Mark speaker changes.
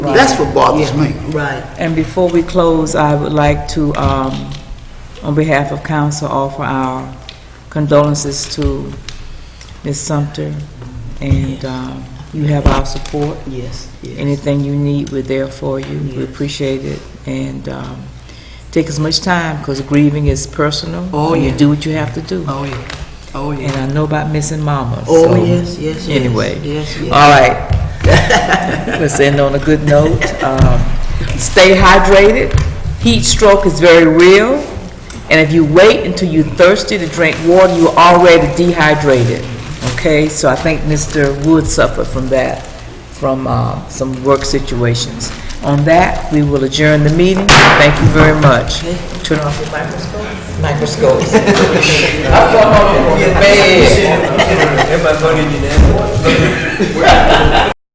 Speaker 1: That's what bothers me.
Speaker 2: Right.
Speaker 3: And before we close, I would like to, um, on behalf of council, offer our condolences to Ms. Sumter, and um, you have our support.
Speaker 2: Yes, yes.
Speaker 3: Anything you need, we're there for you. We
Speaker 2: Yes.
Speaker 3: appreciate it, and um, take as much time, because grieving is personal.
Speaker 2: Oh,
Speaker 3: and
Speaker 2: yeah.
Speaker 3: You do what you have to do.
Speaker 2: Oh, yeah. Oh,
Speaker 3: And
Speaker 2: yeah.
Speaker 3: I know about missing mama,
Speaker 2: Oh,
Speaker 3: so-
Speaker 2: yes, yes, yes.
Speaker 3: Anyway.
Speaker 2: Yes, yes.
Speaker 3: All right. Let's end on a good note. Um, Stay hydrated. Heat stroke is very real. And if you wait until you're thirsty to drink water, you're already dehydrated. Okay? So I think Mr. Wood suffered from that, from uh, some work situations. On that, we will adjourn the meeting. Thank you very much. Turn off your microscope. Microscopes. Get bad.